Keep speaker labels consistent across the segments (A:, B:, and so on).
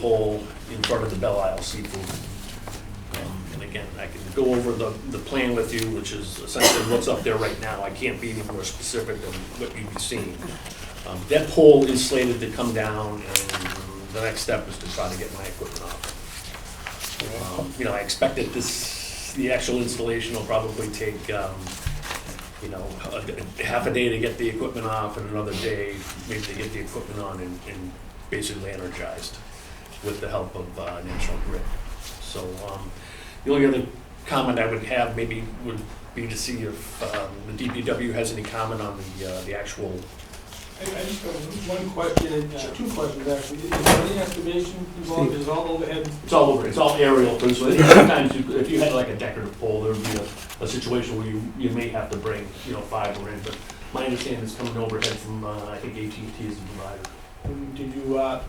A: pole in front of the Belle Isle Seafood. Um, And again, I can go over the, the plan with you, which is essentially what's up there right now. I can't be any more specific than what you've been seeing. Um, That pole is slated to come down, and the next step is to try to get my equipment up. Um, You know, I expect that this, the actual installation will probably take, um, you know, a- half a day to get the equipment off and another day maybe to get the equipment on and, and basically energized with the help of uh, National Grid. So, um, the only other comment I would have maybe would be to see if, um, the DPW has any comment on the, uh, the actual,
B: I I just have one question, uh, two questions actually. Is there any estimation involved, is it all overhead?
A: it's all over, it's all aerial, but so sometimes you- if you had like a decorative pole, there would be a, a situation where you, you may have to bring, you know, fiber in, but my understanding is coming overhead from, uh, I think AT&T is the provider.
B: And Did you, uh,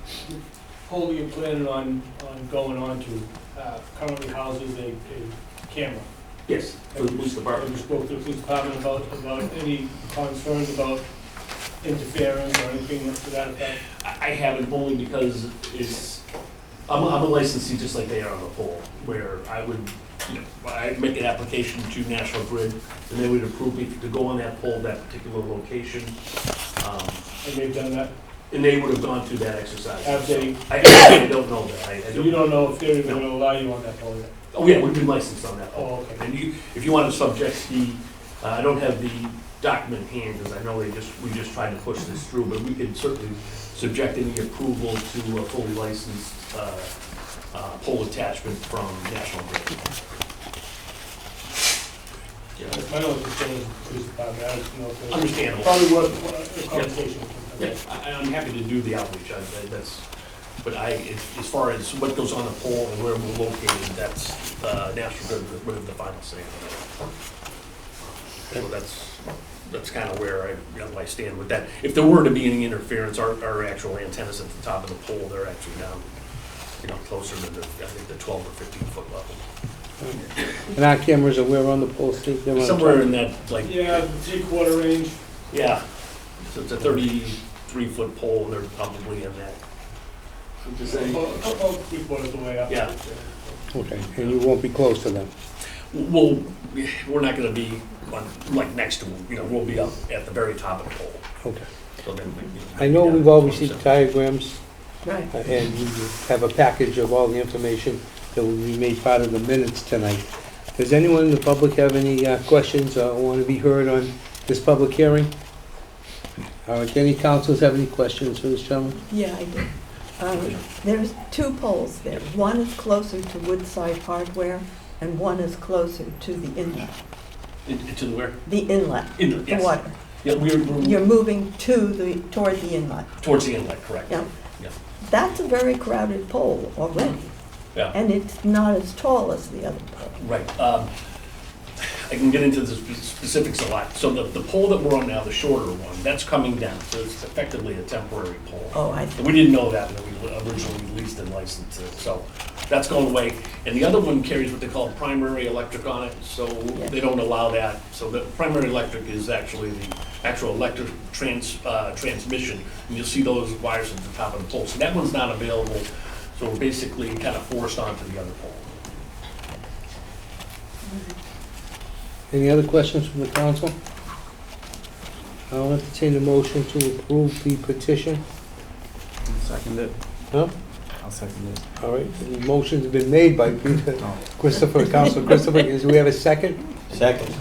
B: wholly you planning on, on going on to, uh, currently houses a, a camera?
A: Yes. For the police
B: Have
A: department.
B: you spoke to the police department about, about any concerns about interference or anything to that effect?
A: I I haven't only because it's, I'm, I'm a licensee just like they are on the pole, where I would, you know, I'd make an application to National Grid, and they would approve me to go on that pole, that particular location. Um,
B: Have they done that?
A: And they would have gone through that exercise.
B: Have they,
A: I, I don't know that, I, I don't,
B: you don't know if they're gonna allow you on that pole yet?
A: oh yeah, we've been licensed on that pole.
B: Oh, okay.
A: And you, if you want to subject the, uh, I don't have the document in hand, because I know they just, we just tried to push this through, but we could certainly subject any approval to a fully licensed uh, uh, pole attachment from National Grid. Yeah,
B: That's my only concern is the police department, I just know if they're.
A: Understandable.
B: Probably worth a conversation. with them.
A: Yeah, I, I'm happy to do the outreach, I, I- that's, but I, as as far as what goes on the pole and where we're located, that's uh, National Grid would have the final say. on that. So that's, that's kind of where I, where I stand with that. If there were to be any interference, our, our actual antennas at the top of the pole, they're actually down, you know, closer to the, I think, the twelve or fifteen foot level.
C: And our cameras are where on the pole, Steve? They're on top.
A: Somewhere in that, like,
B: Yeah, three-quarter range.
A: yeah, so it's a thirty-three foot pole, they're probably in that.
B: About about three-quarters of the way up.
A: Yeah.
C: Okay, and you won't be close to them.
A: Well, we're not gonna be on, like, next to, you know, we'll be up at the very top of the pole.
C: Okay.
A: So then we- you
C: I know we've all received
A: So-
C: diagrams,
A: Right.
C: uh, and we have a package of all the information that will be made part of the minutes tonight. Does anyone in the public have any uh, questions or want to be heard on this public hearing? All right, any councils have any questions for this gentleman?
D: Yeah, I do. Um, There's two poles there. One is closer to Woodside Hardware, and one is closer to the inlet,
A: In- To the where?
D: the inlet,
A: Inlet,
D: the
A: yes.
D: water.
A: Yeah, we're, we're
D: You're moving to the, toward the inlet.
A: towards the inlet, correct?
D: Yeah.
A: Yeah.
D: That's a very crowded pole already,
A: Yeah,
D: and it's not as tall as the other pole.
A: right. Um, I can get into the spe- specifics a lot. So the, the pole that we're on now, the shorter one, that's coming down, so it's effectively a temporary pole.
D: Oh, I see.
A: We didn't know that when we originally leased and licensed it, so that's going away. And the other one carries what they call primary electric on it, so they don't allow that. So the primary electric is actually the actual electric trans, uh, transmission. And you'll see those wires at the top of the pole. So that one's not available, so we're basically kind of forced onto the other pole.
C: Any other questions from the council? I'll entertain a motion to approve the petition.
E: Second it.
C: Huh?
E: I'll second it.
C: All right, the motion's been made by Peter
E: Oh.
C: Christopher, Council Christopher, is we have a second?
E: Second.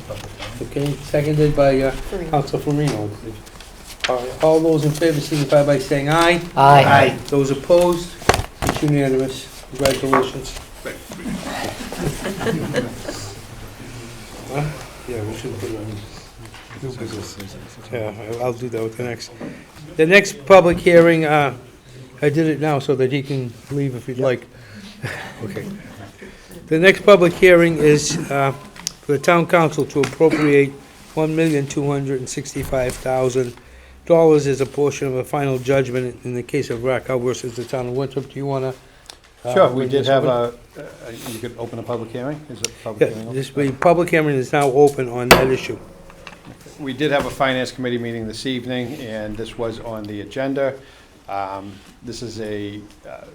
C: Okay, seconded by uh, Council Farino. All right, All those in favor signify by saying aye.
E: Aye.
C: Those opposed, it's unanimous. Congratulations. Huh? Yeah, we should put it on new business. Yeah, I'll do that with the next. The next public hearing, uh, I did it now so that he can leave if he'd like. Okay. The next public hearing is uh, for the town council to appropriate $1,265,000 as a portion of a final judgment in the case of Raquel versus the town of Winthrop. Do you uh, want to?
E: Sure, Uh, we did have a, a- you could open a public hearing, is it
C: Yeah,
E: public hearing?
C: this, the public hearing is now open on that issue.
E: We did have a finance committee meeting this evening, and this was on the agenda. Um, This is a uh,